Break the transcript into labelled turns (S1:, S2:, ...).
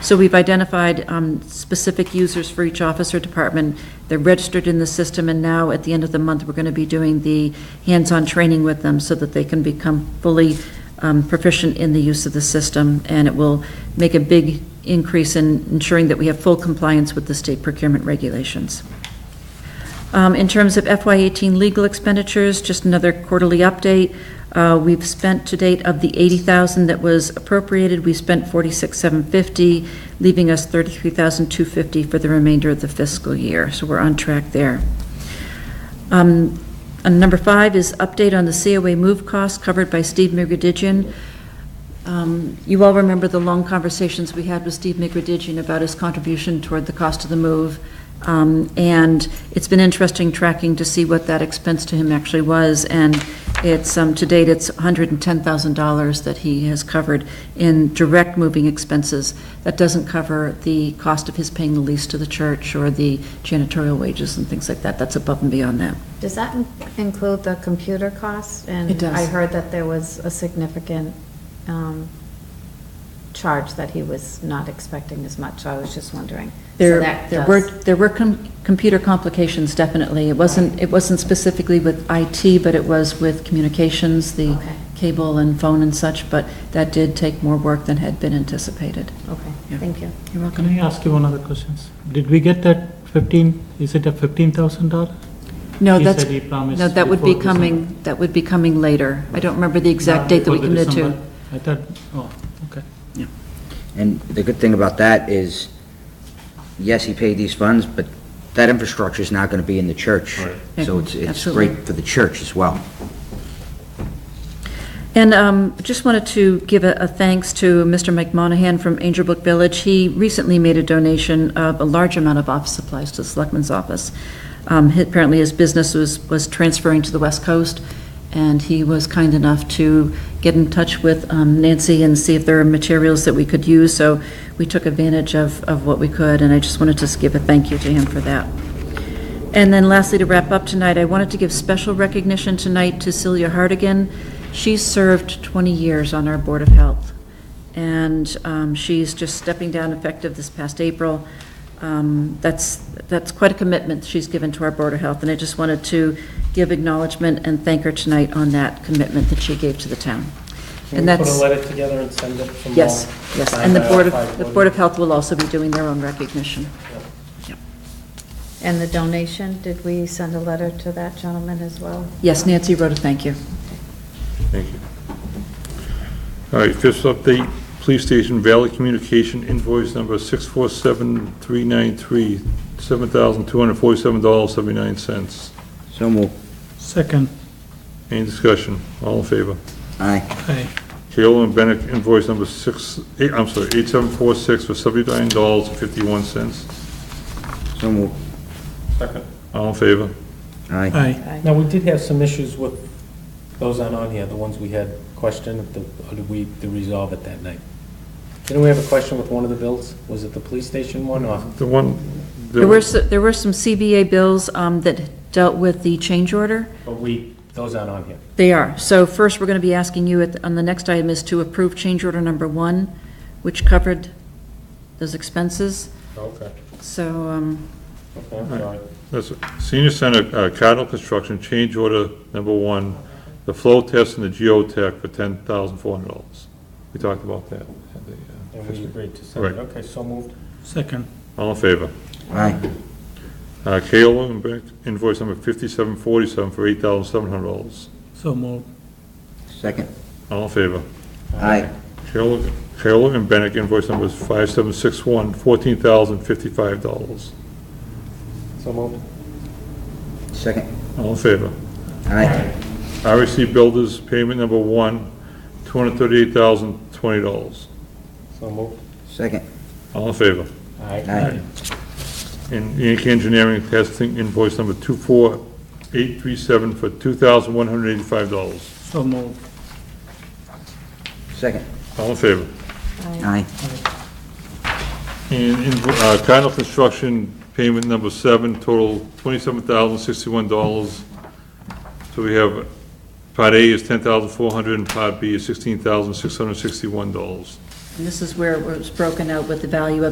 S1: So we've identified um, specific users for each office or department. They're registered in the system, and now, at the end of the month, we're going to be doing the hands-on training with them so that they can become fully um, proficient in the use of the system, and it will make a big increase in ensuring that we have full compliance with the state procurement regulations. Um, In terms of FY18 legal expenditures, just another quarterly update. Uh, We've spent to date of the 80,000 that was appropriated, we spent 46,750, leaving us 33,250 for the remainder of the fiscal year. So we're on track there. Um, And number five is update on the COA move costs covered by Steve Mirgadigian. Um, You all remember the long conversations we had with Steve Migradigian about his contribution toward the cost of the move. Um, And it's been interesting tracking to see what that expense to him actually was. And it's, um, to date, it's $110,000 that he has covered in direct moving expenses. That doesn't cover the cost of his paying the lease to the church or the janitorial wages and things like that. That's above and beyond that.
S2: Does that in- include the computer costs?
S1: It does.
S2: And I heard that there was a significant um, charge that he was not expecting as much, so I was just wondering. So
S1: There,
S2: that
S1: there
S2: does-
S1: were, there were com- computer complications, definitely. It wasn't, it wasn't specifically with IT, but it was with communications, the
S2: Okay.
S1: cable and phone and such, but that did take more work than had been anticipated.
S2: Okay,
S1: Yeah.
S2: thank you.
S1: You're
S3: Can I ask you one other question? Did we get that 15, is it a $15,000?
S1: No,
S3: He
S1: that's,
S3: said he promised
S1: no, that would be
S3: before December.
S1: coming, that would be coming later. I don't remember the exact date that we
S3: Before Uh, the
S1: committed to.
S3: December? I thought, oh, okay.
S4: And the good thing about that is, yes, he paid these funds, but that infrastructure is not going to be in the church.
S1: Right.
S4: So it's, it's
S1: Absolutely.
S4: great for the church as well.
S1: And um, just wanted to give a a thanks to Mr. Mike Monahan from Angel Book Village. He recently made a donation of a large amount of office supplies to the Selectman's office. Um, he- Apparently, his business was, was transferring to the West Coast, and he was kind enough to get in touch with um, Nancy and see if there are materials that we could use, so we took advantage of, of what we could, and I just wanted to give a thank you to him for that. And then lastly, to wrap up tonight, I wanted to give special recognition tonight to Celia Hardigan. She served 20 years on our Board of Health, and um, she's just stepping down effective this past April. Um, That's, that's quite a commitment she's given to our Board of Health, and I just wanted to give acknowledgement and thank her tonight on that commitment that she gave to the town.
S5: Can
S1: And
S5: we put
S1: that's,
S5: a letter together and send it from all?
S1: yes, yes, and
S5: signed
S1: the
S5: by all
S1: Board of,
S5: five
S1: the
S5: board
S1: Board of Health will also be doing their own recognition.
S2: And the donation, did we send a letter to that gentleman as well?
S1: Yes, Nancy wrote a thank you.
S6: Thank you. All right, fifth update, police station Valley Communication invoice number 647-393, $7,247.79.
S4: So move.
S3: Second.
S6: Any discussion? All in favor?
S4: Aye.
S3: Aye.
S6: Kayla and Bennett invoice number 6, eight- I'm sorry, 8746 for $79.51.
S4: So move.
S6: All in favor?
S4: Aye.
S3: Aye.
S5: of- Now, we did have some issues with, those aren't on here, the ones we had questioned, the- or did we did resolve it that night? Didn't we have a question with one of the bills? Was it the police station one or?
S6: The one,
S1: There were,
S6: the
S1: s- there were some CBA bills um, that dealt with the change order.
S5: But we, those aren't on here.
S1: They are. So first, we're going to be asking you, at- on the next item, is to approve change order number one, which covered those expenses.
S5: Okay,
S1: So, um,
S5: okay, I'm sorry.
S6: that's senior center uh, Cardinal Construction change order number one, the flow test and the geotech for $10,400. We talked about that. at the, uh,
S5: And we agreed to send it,
S6: Right.
S5: okay, so moved.
S3: Second.
S6: All in favor?
S4: Aye.
S6: Uh, Kayla and Bennett invoice number 5747 for $8,700.
S3: So moved.
S4: Second.
S6: All in favor?
S4: Aye.
S6: Kayla Kayla and Bennett invoice number 5761, $14,055.
S5: So moved.
S4: Second.
S6: All in favor?
S4: Aye.
S6: REC Builders payment number one, $238,020.
S5: So moved.
S4: Second.
S6: All in favor?
S4: Aye.
S6: And Yankee Engineering Testing invoice number 24837 for $2,185.
S3: So moved.
S4: Second.
S6: All in favor?
S4: Aye.
S6: And invo- uh, Cardinal Construction payment number seven, total $27,061. So we have, part A is $10,400 and part B is $16,661.
S1: And this is where it was broken out with the value of